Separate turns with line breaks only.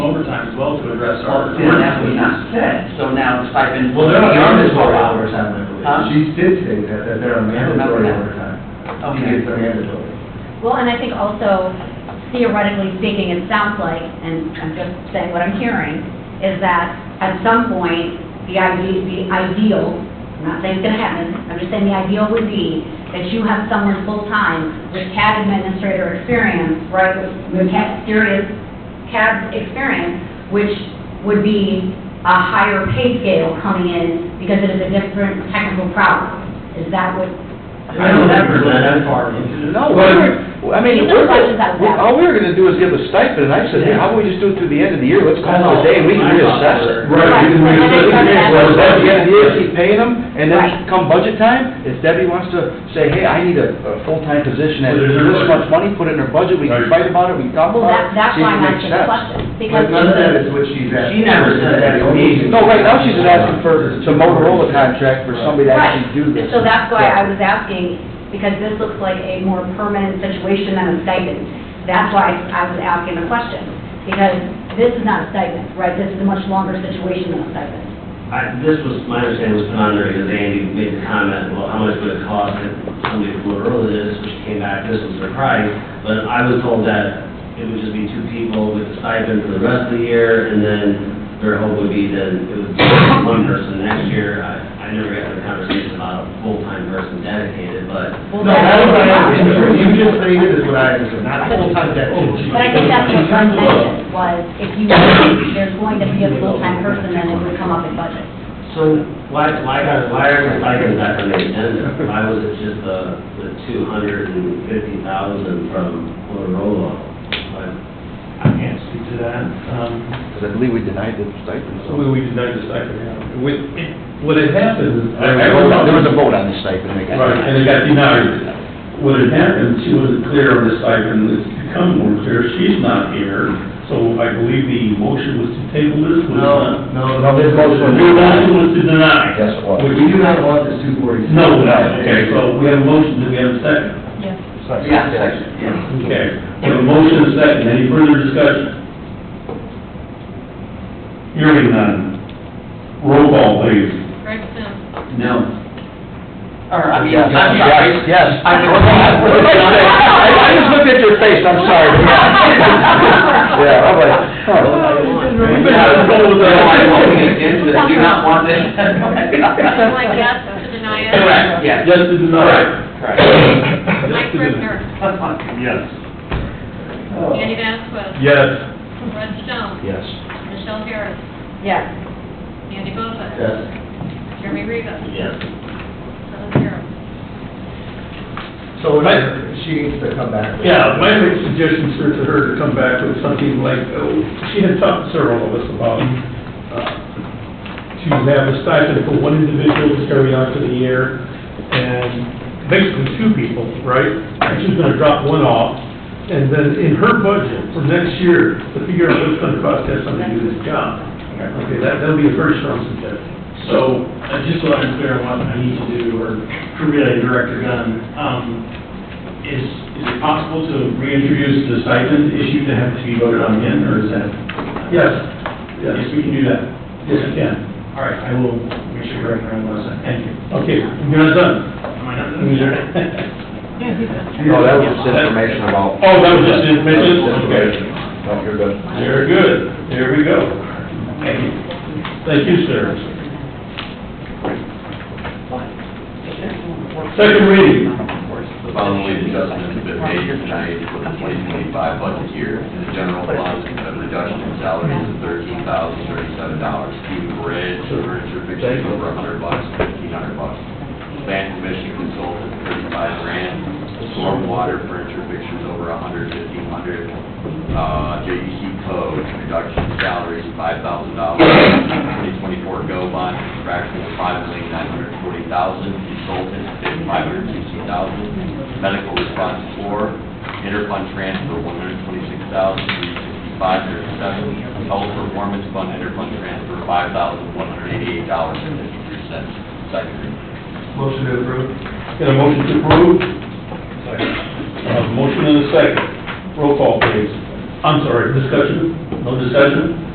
as well to address our.
Well, that's what not said, so now it's stipend.
Well, they're not-
beyond the
Or
12 hours.
overtime, I believe.
Huh?
She did say that, that they're
remember
mandatory
that.
overtime. She
Okay.
gets their mandatory.
Well, and I think also theoretically speaking, it sounds like, and I'm just saying what I'm hearing, is that at some point, the idea, the ideal, I'm not saying it's gonna happen, I'm just saying the ideal would be that you have someone full-time with CAD administrator experience, right, with with CAD serious CAD experience, which would be a higher pay scale coming in because it is a different technical problem. Is that what?
I don't remember that far into it.
No, we were, I mean,
These
we're,
are questions I would have.
all we were gonna do is give a stipend, and I said, hey, how about we just do it through the end of the year, let's call it a day, we can reassess it.
Right,
you can
and then
reassess
it's
it.
gonna
Well,
happen.
at the end of the year, keep paying them, and
Right.
then come budget time, if Debbie wants to say, hey, I need a, a full-time position at
Put it in her
this
budget.
much money, put it in her budget, we can
Right.
fight about it, we can talk
Well,
about
that,
it,
that's
see if
why
it
I'm
makes
asking the
sense.
question, because.
But none of that is what she's asking.
She never said that to me.
No, right now she's asking for the Motorola contract for somebody to
Right,
actually do this.
so that's why I was asking, because this looks like a more permanent situation than a stipend. That's why I was asking the question, because this is not a stipend, right? This is a much longer situation than a stipend.
I, this was, my understanding was put on there because Andy made the comment, well, how much would it cost if somebody from Motorola did this, which came back, this was their price, but I was told that it would just be two people with a stipend for the rest of the year, and then their hope would be that it would be one person next year. I, I never got the conversation about a full-time person dedicated, but
Well,
No,
that's
that's what I
what
understood. What You just stated is what I understood, not full-time deputy.
But I think that's what I mentioned, was if you, if there's going to be a full-time person, then it would come up in budget.
So why, why, why are we talking about that on the agenda? Why was it just the, the two hundred and fifty thousand from Motorola? Like,
I can't speak to that. Um,
Because I believe we denied the stipend, so.
We, we denied the stipend, yeah. With, what had happened, I, I wrote
There was a vote on the stipend, I guess.
Right, and it got denied. What had happened, she wasn't clear on the stipend, it's become more clear, she's not here, so I believe the motion was to table this, was
No,
not?
no, no,
No, this
this
goes
motion
to
The motion was to deny.
Yes, it was.
Which-
We do not want this two forty-six.
No, okay, so we have a motion, do we have a second?
Yes.
Yeah, section, yeah.
Okay, we have a motion, and a second, any further discussion? Hearing none. Roll call, please.
Gregson,
No. Or, I mean,
Yes,
I'm sorry.
yes, yes.
I mean, what I- what
I I just looked at your face, I'm sorry. Yeah, I'm like, huh.
We've been having trouble with
No,
that.
I won't get into that. do not want this.
like yes to deny it.
Correct, yes.
Yes to deny.
Correct.
Mike
Yes to deny.
Rivner,
Yes.
Andy Vasquez,
Yes.
Red Stone,
Yes.
Michelle Harris,
Yes.
Andy Bozak.
Yes.
Jeremy Rivas,
Yes.
seven zero.
So she needs to come back. with-
Yeah, my big suggestion, sir, to her to come back with something like, oh, she had talked to several of us about, uh, to have a stipend for one individual to carry on for the year, and basically two people, right? And she's gonna drop one off, and then in her budget for next year, to figure out what it's gonna cost to have somebody do this job. Okay, that, that'll be a very strong suggestion.
So, uh, just so I'm clear on what I need to do, or to relay Director Gunn, um, is, is it possible to reintroduce the stipend issue to have to be voted on again, or is that?
Yes, yes,
Yes, we can do that.
yes, you can.
All right, I will make sure Director Gunn knows that. Thank you.
Okay, you're not done.
Am I not done yet?
No, Oh, that was just information about.
Oh, that was just information? Okay.
No, you're good.
Very good. There we go. Thank you. Thank you, sir. Second reading.
The following adjustments have been made tonight for the 2025 budget year. In the general fund, a reduction in salaries of $13,037, student bridge, furniture fixtures over 100 bucks, 1,500 bucks. Land commission consultant, 35 grand. Stormwater furniture fixtures over 100, 1,500. Uh, JEC code, reduction in salaries, $5,000. 2024 GO bond, fraction of 5,940,000. Consultant, 560,000 medical response four, interfund transfer, one hundred twenty-six thousand, three sixty-five, thirty-seven, health performance fund, interfund transfer, five thousand, one hundred eighty-eight dollars and fifty-three cents. Second reading.
Motion to approve.
Got a motion to approve? Uh, motion and a second. Roll call, please. I'm sorry, discussion? No discussion?